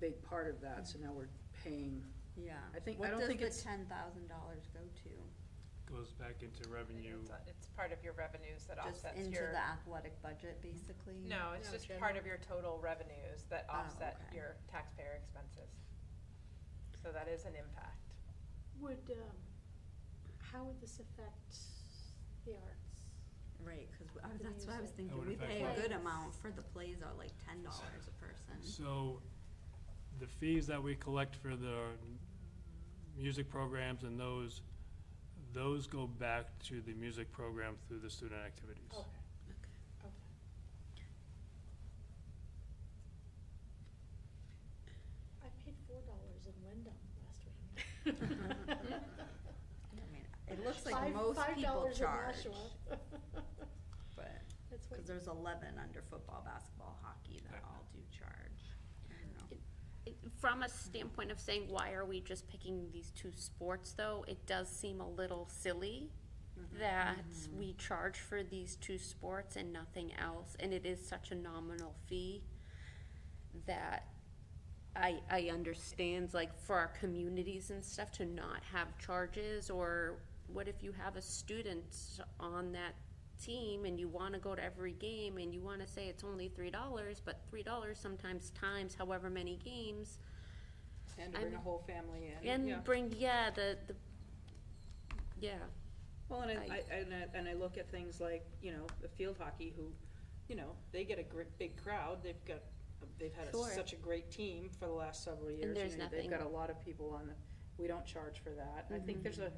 big part of that, so now we're paying, Yeah. I think- I don't think What does it's- the ten thousand dollars go to? goes back into revenue. It's a- It's part of your revenues that Just offsets into your, the athletic budget, basically? no, it's No, just part of your total revenues that Oh, offset okay. your taxpayer expenses. So that is an impact. Would, um, how would this affect the arts? Right, cause we- I- The that's what I was music. thinking, would we affect pay a what? good amount for the plays are like ten dollars a person. So the fees that we collect for the music programs and those, those go back to the music program through the student activities. Okay, okay. I paid four dollars in Wyndham last week. I mean, It looks like Five- most five people dollars in charge, Nashua. but, That's what, cause there's eleven under football, basketball, hockey that Yeah. all do charge. I don't know. From a standpoint of saying, why are we just picking these two sports, though, it does seem a little silly that we charge for these two sports and nothing else, and it is such a nominal fee that I, I understand, like, for our communities and stuff to not have charges, or what if you have a student on that team and you wanna go to every game and you wanna say it's only three dollars, but three dollars sometimes times however many games, and to I'm- bring a whole family in. and Yeah. bring, yeah, the, the, yeah, Well, and I, I- I, and I, and I look at things like, you know, the field hockey who, you know, they get a gr- big crowd, they've got, they've had a- Sure. such a great team for the last several years. you there's know, They've got a nothing- lot of people on the, we don't charge for that, I think there's a,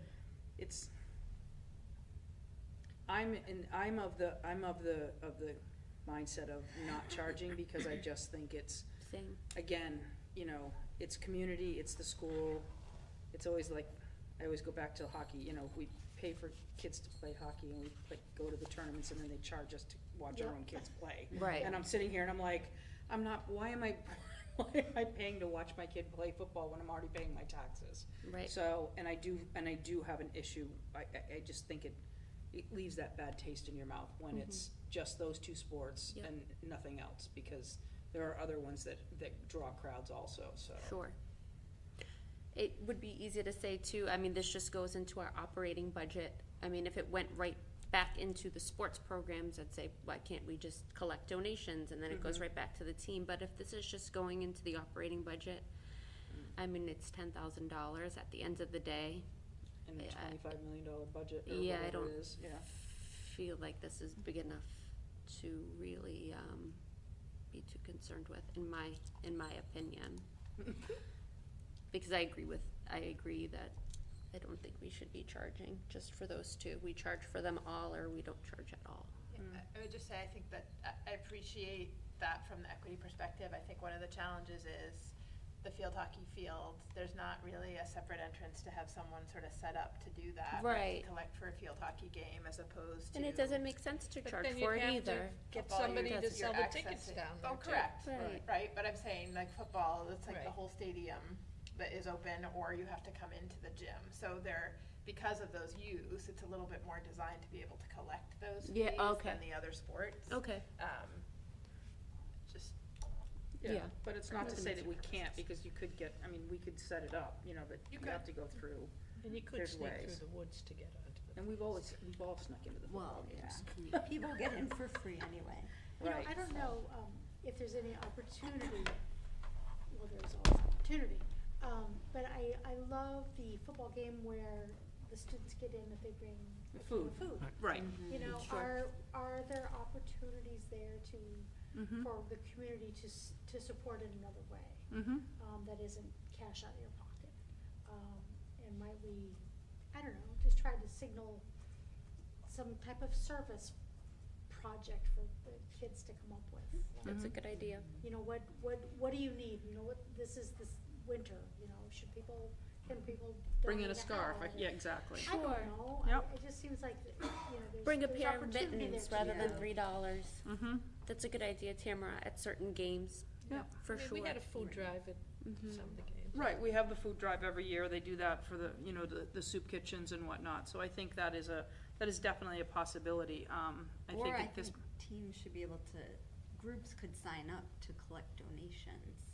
it's. I'm in, I'm of the, I'm of the, of the mindset of not charging because I just think it's, same. again, you know, it's community, it's the school, it's always like, I always go back to hockey, you know, we pay for kids to play hockey and we like go to the tournaments and then they charge us to watch our Yep. own kids play. Right. And I'm sitting here and I'm like, I'm not, why am I, why am I paying to watch my kid play football when I'm already paying my taxes? Right. So, and I do, and I do have an issue, I, I, I just think it, it leaves that bad taste in your mouth when it's just those two sports Mm-hmm. Yep. and nothing else, because there are other ones that, that draw crowds also, so. Sure. It would be easy to say too, I mean, this just goes into our operating budget. I mean, if it went right back into the sports programs, I'd say, why can't we just collect donations and then it goes right back to the team? But if this is just going into the operating budget, I mean, it's ten thousand dollars at the end of the day. And the Yeah, I- twenty-five million dollar budget or Yeah, I whatever it don't- is, yeah. Feel like this is big enough to really, um, be too concerned with, in my, in my opinion. Because I agree with, I agree that I don't think we should be charging just for those two. We charge for them all or we don't charge at all. Yeah, I I would just say, I think that, uh, I- I appreciate that from the equity perspective. I think one of the challenges is the field hockey field, there's not really a separate entrance to have someone sort of set up to do that. to Right. Collect for a field hockey game as opposed to. And it doesn't make sense to charge for it either. Get somebody to sell the tickets down there, Oh, too. correct, Right. right, but I'm saying like football, it's like the Right. whole stadium that is open or you have to come into the gym. So there, because of those use, it's a little bit more designed to be able to collect those Yeah, fees okay. than the other sports. Okay. Um, just, Yeah, Yeah. but it's not to say that we Nothing can't, because you could get, I mean, we could set it up, you know, but you could. have to go through. And you could There's sneak ways. through the woods to get onto the. And we've always, we've all snuck into the football Well, games. yeah, people get in for free anyway. you know, Right. I don't know, um, if there's any opportunity, well, there's always opportunity. Um, but I, I love the football game where the students get in if they bring. The a can of food. Mm-hmm. Food. Right. You know, Sure. are, are there opportunities there Hmm? to, for the community to, s- to support in another way? Mm-hmm. um, that isn't cash out of your pocket. Um, and might we, I don't know, just try to signal some type of service project for the kids to come up with. Like, That's a good idea. You know, what, what, what do you need? You know, what, this is this winter, you know, should people, can people Bring in a donate scarf, I- hat? yeah, exactly. I don't Sure. know. Yep. I, it just seems like, you know, there's, Bring a there's pair of opportunity mittens there to rather than do. three dollars. Mm-hmm. That's a good idea, Tamara, at certain games, Yeah. for I mean, sure. We had a food drive at some of the games. Right, we have the food drive every year, they do that for the, you know, the, the soup kitchens and whatnot, so I think that is a, that is definitely a possibility, um, I think Or Mm-hmm. I at this. think teams should be able to, groups could sign up to collect donations.